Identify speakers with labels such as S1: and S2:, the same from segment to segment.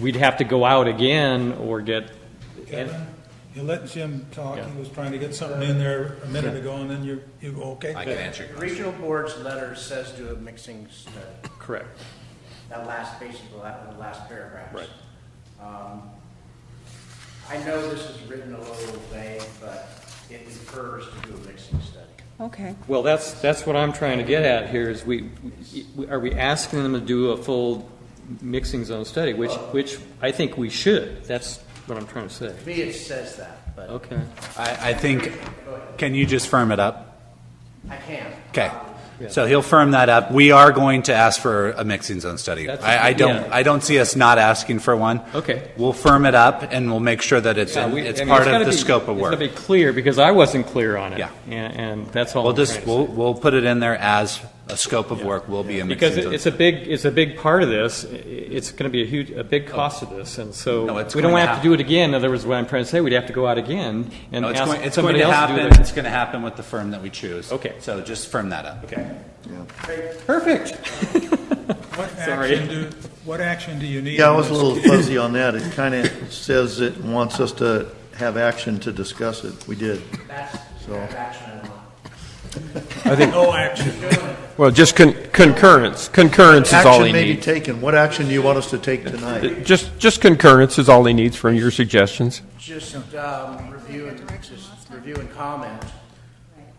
S1: we'd have to go out again or get,
S2: Kevin, you let Jim talk, he was trying to get something in there a minute ago, and then you, you, go, okay?
S3: I can answer your question.
S4: Regional board's letter says do a mixing study,
S1: correct.
S4: that last, basically, that, the last paragraph.
S1: Right.
S4: Um, I know this is written a little vague, but it refers to do a mixing study.
S5: Okay,
S1: Well, that's, that's what I'm trying to get at here is we, we- are we asking them to do a full mixing zone study, which, which I think we should. That's what I'm trying to say.
S4: To me, it says that, but
S1: Okay.
S3: I, I think, can you just firm it up?
S4: I can't.
S3: Okay. So he'll firm that up. We are going to ask for a mixing zone study.
S1: That's-
S3: I, I don't,
S1: yeah.
S3: I don't see us not asking for one.
S1: Okay.
S3: We'll firm it up and we'll make sure that it's,
S1: Yeah, we-
S3: it's
S1: I mean,
S3: part
S1: gotta
S3: of the
S1: be-
S3: scope of
S1: It's
S3: work.
S1: gotta be clear, because I wasn't clear on it.
S3: Yeah.
S1: And, and that's all
S3: We'll
S1: I'm trying
S3: just,
S1: to
S3: we'll,
S1: say.
S3: we'll put it in there as a scope of work will be a
S1: Because
S3: mixing
S1: it-
S3: zone.
S1: it's a big, it's a big part of this, I- it's gonna be a huge, a big cost of this, and so,
S3: Oh. No, it's
S1: we don't
S3: going to
S1: have to do it again, in other words, what I'm trying to say, we'd have to go out again and
S3: No, it's going,
S1: ask
S3: it's going
S1: somebody
S3: to
S1: else to do
S3: happen,
S1: it.
S3: it's going to happen with the firm that we choose.
S1: Okay.
S3: So just firm that up.
S1: Okay.
S4: Okay,
S1: Perfect.
S2: What
S1: Sorry.
S2: action do, what action do you need?
S6: Yeah, I
S2: on
S6: was a
S2: this?
S6: little fuzzy on that. It kind of says it wants us to have action to discuss it. We did.
S4: That's,
S6: So-
S4: that's action I want.
S2: No action.
S7: Well, just con- concurrence. Concurrence is all he
S6: Action may be
S7: needs.
S6: taken. What action do you want us to take tonight?
S7: Just, just concurrence is all he needs from your suggestions.
S4: Just, um, review and, just review and comment.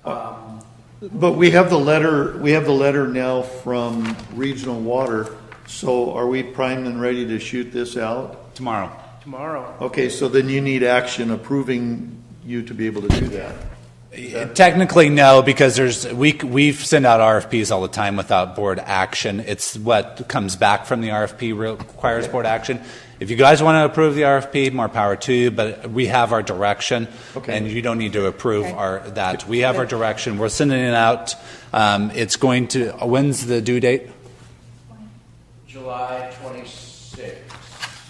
S6: But we have the letter, we have the letter now from Regional Water. So are we primed and ready to shoot this out?
S3: Tomorrow.
S4: Tomorrow,
S6: Okay, so then you need action approving you to be able to do that.
S3: Uh, Technically, no, because there's, we, we send out RFPs all the time without board action. It's what comes back from the RFP requires board action. If you guys want to approve the RFP, more power to you, but we have our direction,
S6: Okay.
S3: and you don't need to approve
S5: Okay.
S3: our, that. We have our direction, we're sending it out. Um, It's going to, when's the due date?
S4: July twenty-sixth.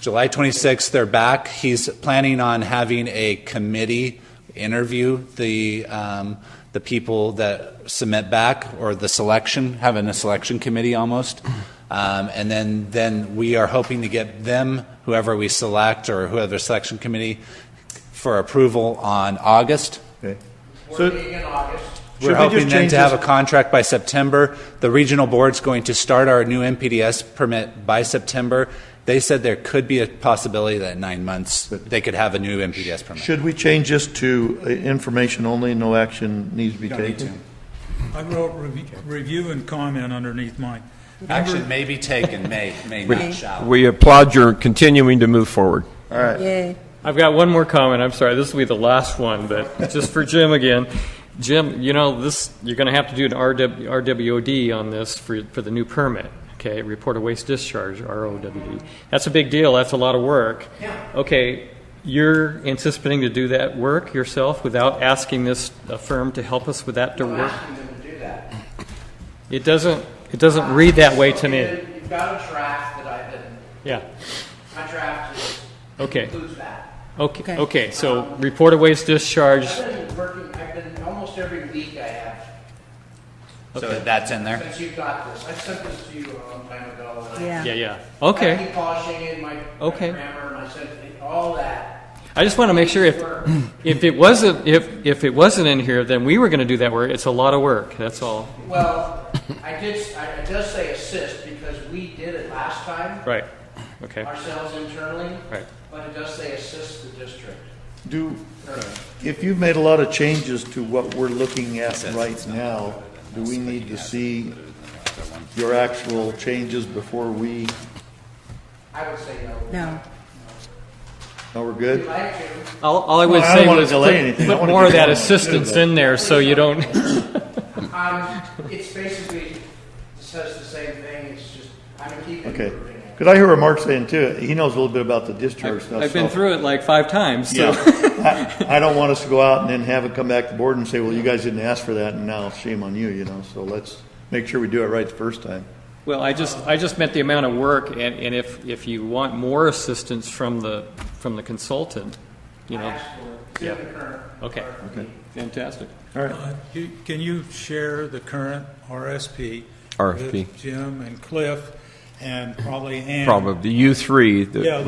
S3: July 26th, they're back. He's planning on having a committee interview the, um, the people that submit back, or the selection, having a selection committee almost. Um, and then, then we are hoping to get them, whoever we select, or whoever selection committee, for approval on August.
S6: Okay.
S4: We're
S6: So-
S4: meeting in August.
S6: Should
S3: We're
S6: we just
S3: hoping then
S6: change
S3: to have a
S6: this-
S3: contract by September. The regional board's going to start our new MPDS permit by September. They said there could be a possibility that in nine months, they could have a new MPDS permit.
S6: Should we change this to uh, information only, no action needs to be
S3: You don't need to.
S6: taken?
S2: I wrote rev- review and comment underneath mine.
S3: Action may be taken, may, may
S7: We-
S3: not, shall.
S7: We applaud your continuing to move forward.
S6: All right.
S5: yay.
S1: I've got one more comment. I'm sorry, this will be the last one, but just for Jim again. Jim, you know, this, you're going to have to do an RW RWOD on this for, for the new permit, okay? Report of waste discharge, ROWD. That's a big deal. That's a lot of work. Yeah. Okay, you're anticipating to do that work yourself without asking this uh, firm to help us with that to
S4: I'm
S1: work?
S4: asking them to do that.
S1: It doesn't, it doesn't read that way to me.
S4: You've got a draft that I've been,
S1: Yeah,
S4: my draft is,
S1: okay,
S4: includes that.
S1: okay,
S5: Okay.
S1: okay. So report of waste discharge,
S4: I've been working, I've been, almost every week I have,
S3: So that's in there?
S4: since you've got this, I sent this to you a long time ago. and I-
S5: Yeah.
S1: yeah, yeah.
S4: I
S1: Okay.
S4: keep polishing it, my my
S1: Okay.
S4: grammar, my sentence, all that.
S1: I just want to make sure if,
S4: Work.
S1: if it wasn't, if, if it wasn't in here, then we were going to do that work. It's a lot of work, that's all.
S4: Well, I did, I I does say assist because we did it last time
S1: Right, okay,
S4: ourselves internally,
S1: right.
S4: but it does say assist the district.
S6: Do, if you've made a lot of changes to what we're looking at right now, do we need to see your actual changes before we,
S4: I would say no.
S5: No.
S6: no, oh, we're
S4: If you
S6: good?
S4: like to,
S1: All, all I would
S6: Well, I don't
S1: say
S6: wanna
S1: was
S6: delay
S1: put-
S6: anything. I
S1: put
S6: wanna
S1: more
S6: get
S1: of that
S6: going as soon as
S1: assistance
S6: I-
S1: in there so you don't,
S4: Um, it's basically, it says the same thing, it's just, I'm gonna keep
S6: Okay.
S4: improving it.
S6: Because I hear Mark saying too, he knows a little bit about the discharge stuff.
S1: I've been
S6: so-
S1: through it like five times, so.
S6: Yeah. I I don't want us to go out and then have it come back to board and say, well, you guys didn't ask for that, and now shame on you, you know? So let's make sure we do it right the first time.
S1: Well, I just, I just meant the amount of work and, and if, if you want more assistance from the, from the consultant, you
S4: I
S1: know,
S4: asked for it. It's in the current
S1: okay.
S4: RFP.
S1: Fantastic.
S2: Uh, you- Can you share the current RSP?
S7: RFP.
S2: with Jim and Cliff and probably Ann?
S7: Probably, you three,
S2: Yeah,
S7: the